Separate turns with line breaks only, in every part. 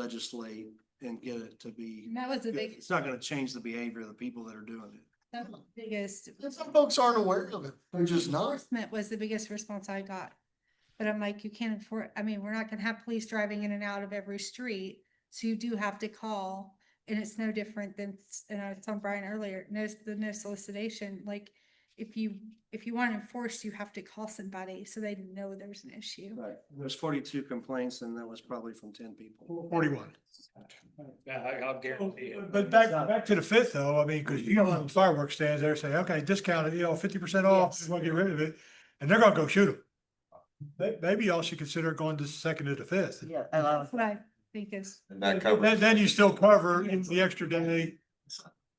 legislate and get it to be,
And that was the big,
it's not gonna change the behavior of the people that are doing it.
that was the biggest.
And some folks aren't aware of it. They're just not.
Enforcement was the biggest response I got. But I'm like, you can't enforce, I mean, we're not gonna have police driving in and out of every street, so you do have to call. And it's no different than, s- and I was telling Brian earlier, no, s- the no solicitation, like, if you, if you want enforced, you have to call somebody so they know there's an issue.
Right. There's forty-two complaints and that was probably from ten people.
Forty-one.
Yeah, I- I'll guarantee it.
But back, back to the fifth though, I mean, cause you know, when fireworks stands there, say, okay, discounted, you know, fifty percent off,
Yes.
just wanna get rid of it, and they're gonna go shoot them. May- maybe y'all should consider going to second to the fifth.
Yeah, I love
That's What I think is,
And that
Then,
covers,
then you still cover the extra day,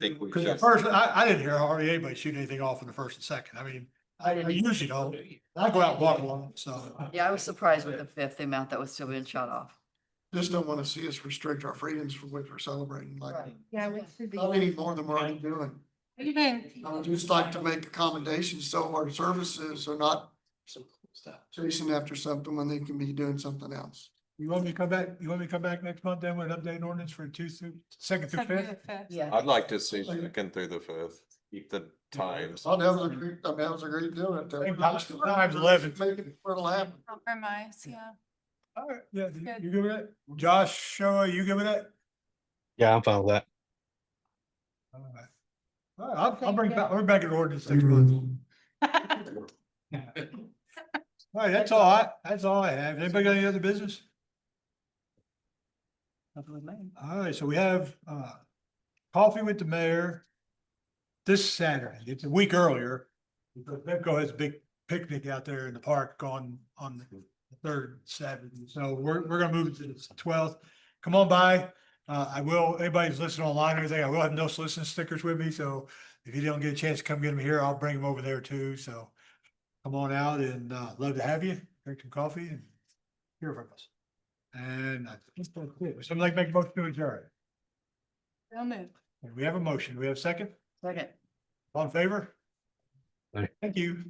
think we
cause the
should,
first, I, I didn't hear hardly anybody shoot anything off in the first and second, I mean, I I usually don't. I go out and walk along, so.
Yeah, I was surprised with the fifth, the amount that was still being shut off.
Just don't want to see us restrict our freedoms from which we're celebrating like.
Right.
yeah, we should be.
Not any more than we're already doing.
Even-
I would just like to make accommodations so our services are not chasing after something when they can be doing something else.
You want me to come back, you want me to come back next month then with an updated ordinance for two through, second through
Second
fifth?
to fifth.
Yeah.
I'd like to see second through the fifth, keep the times.
Oh, that was a great, I mean, that was a great deal. at that-
Same time, times 11.
Make it, it'll happen.
Compromise, yeah.
All right, yeah,
Good.
you good with that? Josh, uh, you good with that?
Yeah, I'm fine with that.
All right. All right, I'll, I'll
Thank
bring
you.
back, I'll bring back an ordinance next month. All right, that's all I, that's all I have. Anybody got any other business?
Nothing with me.
All right, so we have, uh, coffee with the mayor this Saturday. It's a week earlier. because Pepco has a big picnic out there in the park on, on the third Saturday. So we're, we're gonna move it to the twelfth. Come on by. Uh, I will, anybody who's listening online or anything, I will have no soliciting stickers with me, so if you don't get a chance to come get them here, I'll bring them over there too, so come on out and, uh, love to have you, drink some coffee and hear from us. And I think that's it. Would somebody like to make a motion to adjourn?
They'll move.
We have a motion. We have a second?
Second.
All in favor?
Aye.
Thank you.